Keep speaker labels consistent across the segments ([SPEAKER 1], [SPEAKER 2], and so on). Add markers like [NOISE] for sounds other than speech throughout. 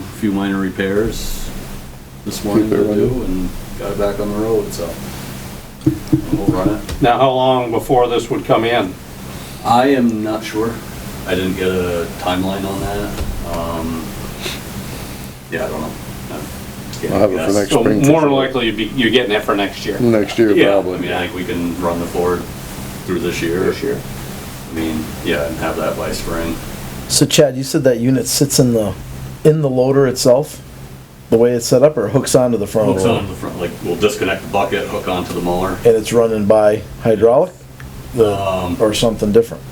[SPEAKER 1] few minor repairs this morning to do and got it back on the road, so. We'll run it.
[SPEAKER 2] Now, how long before this would come in?
[SPEAKER 1] I am not sure. I didn't get a timeline on that. Um, yeah, I don't know.
[SPEAKER 3] I'll have it for next
[SPEAKER 2] So
[SPEAKER 3] spring.
[SPEAKER 2] more than likely, you'd be, you're getting it for next year.
[SPEAKER 3] Next year,
[SPEAKER 1] Yeah, I mean,
[SPEAKER 3] probably.
[SPEAKER 1] I think we can run the Ford through this year.
[SPEAKER 2] This year.
[SPEAKER 1] I mean, yeah, and have that by spring.
[SPEAKER 4] So Chad, you said that unit sits in the, in the loader itself? The way it's set up or hooks onto the
[SPEAKER 3] Oh.
[SPEAKER 4] front of
[SPEAKER 1] Hooks
[SPEAKER 4] the
[SPEAKER 1] on
[SPEAKER 4] loader?
[SPEAKER 1] the front, like, we'll disconnect the bucket, hook onto the molar.
[SPEAKER 4] And it's running by hydraulic? The,
[SPEAKER 1] Um,
[SPEAKER 4] or something different?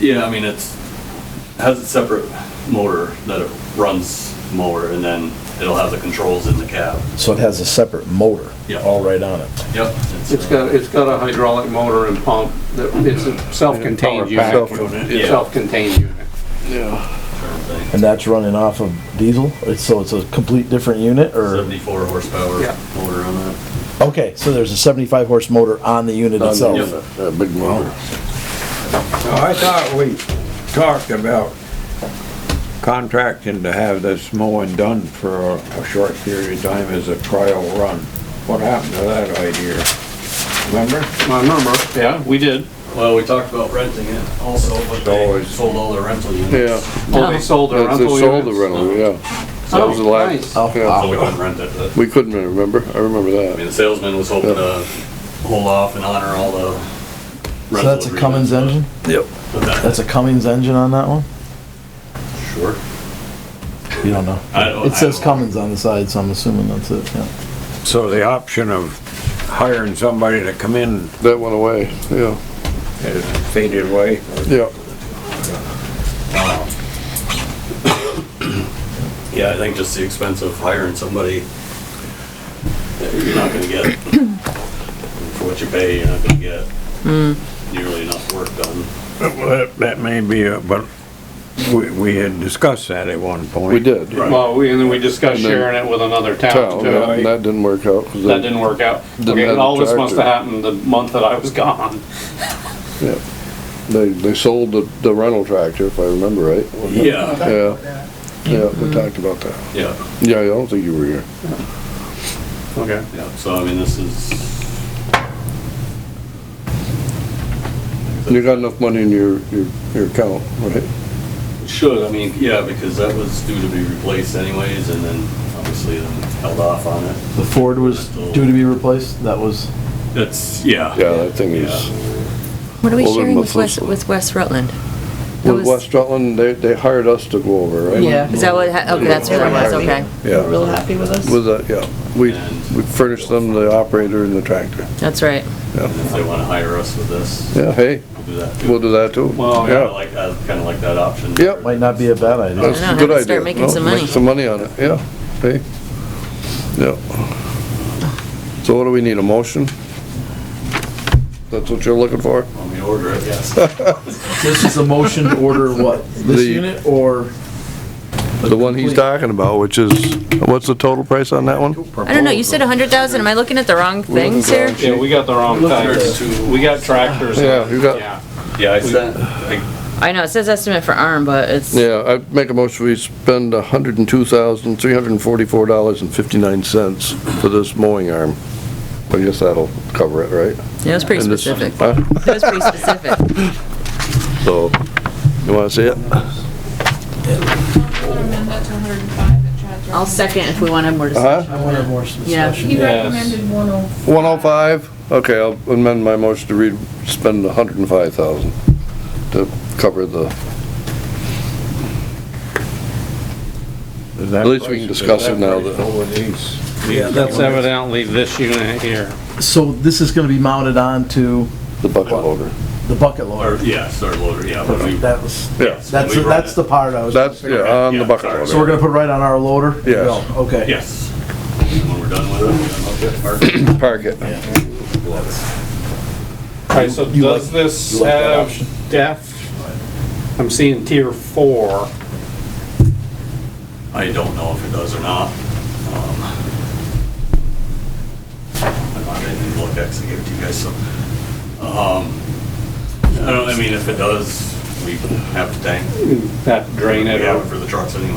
[SPEAKER 1] Yeah, I mean, it's, has a separate motor that it runs mower, and then it'll have the controls in the cab.
[SPEAKER 4] So it has a separate motor?
[SPEAKER 1] Yeah.
[SPEAKER 4] All right on it?
[SPEAKER 1] Yep.
[SPEAKER 2] It's got, it's got a hydraulic motor and pump, that- it's a self-contained
[SPEAKER 3] Power pack.
[SPEAKER 2] unit.
[SPEAKER 1] Yeah.
[SPEAKER 2] Self-contained unit.
[SPEAKER 4] And that's running off of diesel? It's- So it's a complete different unit or?
[SPEAKER 1] Seventy-four horsepower
[SPEAKER 2] Yeah.
[SPEAKER 1] motor on that.
[SPEAKER 4] Okay, so there's a seventy-five horse motor on the unit itself?
[SPEAKER 1] Yep.
[SPEAKER 3] That big motor.
[SPEAKER 5] Now, Oh, I thought we talked about contracting to have this mowing done for a a short period of time as a trial run. What happened to that idea? Remember?
[SPEAKER 2] I remember, yeah, we did.
[SPEAKER 1] Well, we talked about renting it also, but they
[SPEAKER 5] Always.
[SPEAKER 1] sold all their rental units.
[SPEAKER 3] Yeah,
[SPEAKER 2] Oh, they sold the
[SPEAKER 3] that's, they
[SPEAKER 2] rental
[SPEAKER 3] sold the
[SPEAKER 2] units?
[SPEAKER 3] rental, yeah. That was the
[SPEAKER 2] Oh,
[SPEAKER 3] last.
[SPEAKER 2] nice.
[SPEAKER 3] yeah.
[SPEAKER 1] So we couldn't rent it, but,
[SPEAKER 3] We couldn't remember, I remember
[SPEAKER 1] I mean,
[SPEAKER 3] that.
[SPEAKER 1] the salesman was hoping to hold off and honor all the
[SPEAKER 4] So
[SPEAKER 1] rental
[SPEAKER 4] that's a Cummins engine?
[SPEAKER 1] agreements, but- but that-
[SPEAKER 4] That's a Cummins engine on that one?
[SPEAKER 1] Sure.
[SPEAKER 4] You don't know?
[SPEAKER 1] Oh, I don't-
[SPEAKER 4] It
[SPEAKER 1] I
[SPEAKER 4] says
[SPEAKER 1] don't-
[SPEAKER 4] Cummins on the side, so I'm assuming that's it, yeah.
[SPEAKER 5] So the option of hiring somebody to come in
[SPEAKER 3] That went away, yeah,
[SPEAKER 5] has faded away.
[SPEAKER 3] yeah.
[SPEAKER 1] Yeah, I think just the expense of hiring somebody, uh, you're not gonna get, for what you pay, you're not gonna get nearly enough work done.
[SPEAKER 5] Well, That that may be, a- but we, we had discussed that at one point.
[SPEAKER 3] We did.
[SPEAKER 2] Well, we, and then we discussed
[SPEAKER 3] And then-
[SPEAKER 2] sharing it with another town
[SPEAKER 3] Town,
[SPEAKER 2] too.
[SPEAKER 3] yeah, and that didn't work out. 'cause
[SPEAKER 2] That didn't work out.
[SPEAKER 3] Didn't
[SPEAKER 2] Okay,
[SPEAKER 3] have a
[SPEAKER 2] all this must
[SPEAKER 3] tractor.
[SPEAKER 2] have happened the month that I was gone.
[SPEAKER 3] They, they sold the, the rental tractor, if I remember right.
[SPEAKER 1] Yeah,
[SPEAKER 3] Yeah, yeah, we talked about that.
[SPEAKER 1] yeah,
[SPEAKER 3] Yeah, I don't think you were here.
[SPEAKER 2] Okay.
[SPEAKER 1] yeah, so I mean, this is,
[SPEAKER 3] You got enough money in your, your, your account, right?
[SPEAKER 1] should, I mean, yeah, because that was due to be replaced anyways, and then obviously then held off on it.
[SPEAKER 4] The Ford was due to be replaced, that was,
[SPEAKER 1] That's, yeah.
[SPEAKER 3] Yeah, that thing is.
[SPEAKER 6] What are we
[SPEAKER 3] Well, then
[SPEAKER 6] sharing
[SPEAKER 3] the
[SPEAKER 6] with West,
[SPEAKER 3] first one.
[SPEAKER 6] with West Rutland? That
[SPEAKER 3] With
[SPEAKER 6] was-
[SPEAKER 3] West Rutland, they, they hired us to go over, right?
[SPEAKER 7] Yeah.
[SPEAKER 6] Is that what, ha- okay, that's what it was, okay,
[SPEAKER 7] They were Real happy with us.
[SPEAKER 3] With that, yeah, we,
[SPEAKER 1] And-
[SPEAKER 3] we furnished them the operator and the tractor.
[SPEAKER 6] that's right.
[SPEAKER 1] And if they wanna hire us with this,
[SPEAKER 3] Yeah, hey,
[SPEAKER 1] we'll do that too.
[SPEAKER 3] we'll do that too.
[SPEAKER 1] Well, yeah, like, I kinda like that option.
[SPEAKER 3] Yep.
[SPEAKER 4] might not be a bad idea.
[SPEAKER 3] That's
[SPEAKER 6] I know,
[SPEAKER 3] a good
[SPEAKER 6] have to start
[SPEAKER 3] idea.
[SPEAKER 6] making
[SPEAKER 3] No,
[SPEAKER 6] some money.
[SPEAKER 3] Make some money on it, yeah, hey, yeah. So what do we need, a motion? That's what you're looking for?
[SPEAKER 1] Let me order it, yes.
[SPEAKER 4] This is a motion to order what, this
[SPEAKER 3] The-
[SPEAKER 4] unit or?
[SPEAKER 3] The one he's talking about, which is, what's the total price on that one?
[SPEAKER 6] I don't know, you said a hundred thousand, am I looking at the wrong things here?
[SPEAKER 2] Yeah, we got the wrong types. We got tractors.
[SPEAKER 3] Yeah, you got-
[SPEAKER 2] Yeah.
[SPEAKER 1] Yeah, I sent, I,
[SPEAKER 6] I know, it says estimate for ARM, but it's,
[SPEAKER 3] Yeah, I make a motion, we spend hundred and two thousand, three hundred and forty-four dollars and fifty-nine cents for this mowing arm. I guess that'll cover it, right?
[SPEAKER 6] yeah, it was pretty
[SPEAKER 3] And this-
[SPEAKER 6] specific.
[SPEAKER 3] huh?
[SPEAKER 6] That was pretty specific.
[SPEAKER 3] So, you wanna see it?
[SPEAKER 8] amend that to 105 that Chad's
[SPEAKER 6] I'll second if we want to have more discussion.
[SPEAKER 3] Huh?
[SPEAKER 4] more
[SPEAKER 6] Yeah.
[SPEAKER 8] He
[SPEAKER 2] Yes.
[SPEAKER 8] recommended 105.
[SPEAKER 3] One oh five? Okay, I'll amend my motion to read, spend a hundred and five thousand to cover the,
[SPEAKER 5] At
[SPEAKER 3] least we can discuss it now that-
[SPEAKER 2] Yeah, that's evidently this unit here.
[SPEAKER 4] So this is gonna be mounted onto
[SPEAKER 3] the bucket loader.
[SPEAKER 4] the bucket
[SPEAKER 1] or,
[SPEAKER 4] loader?
[SPEAKER 1] yeah, start loader, yeah. when we-
[SPEAKER 4] That was,
[SPEAKER 3] Yeah,
[SPEAKER 4] that's,
[SPEAKER 1] we run
[SPEAKER 4] that's
[SPEAKER 1] it.
[SPEAKER 4] the part I was.
[SPEAKER 3] that's, yeah, on the
[SPEAKER 1] Yeah,
[SPEAKER 3] bucket
[SPEAKER 1] sorry.
[SPEAKER 3] loader.
[SPEAKER 4] So we're gonna put right on our loader?
[SPEAKER 3] Yes.
[SPEAKER 4] Yeah. Okay.
[SPEAKER 1] Yes. When we're done with it, we're gonna look
[SPEAKER 3] Park it.
[SPEAKER 4] [COUGHS]
[SPEAKER 2] Alright, so
[SPEAKER 4] You like-
[SPEAKER 2] does this
[SPEAKER 4] you like that
[SPEAKER 2] have
[SPEAKER 4] option?
[SPEAKER 2] depth? I'm seeing tier four.
[SPEAKER 1] at- I don't know if it does or not. Um, I'm not gonna even look, I actually gave it to you guys, so. Um, I don't, I mean, if it does, we have to tank,
[SPEAKER 2] Have to drain
[SPEAKER 1] we
[SPEAKER 2] it or
[SPEAKER 1] have it for the trucks anyway.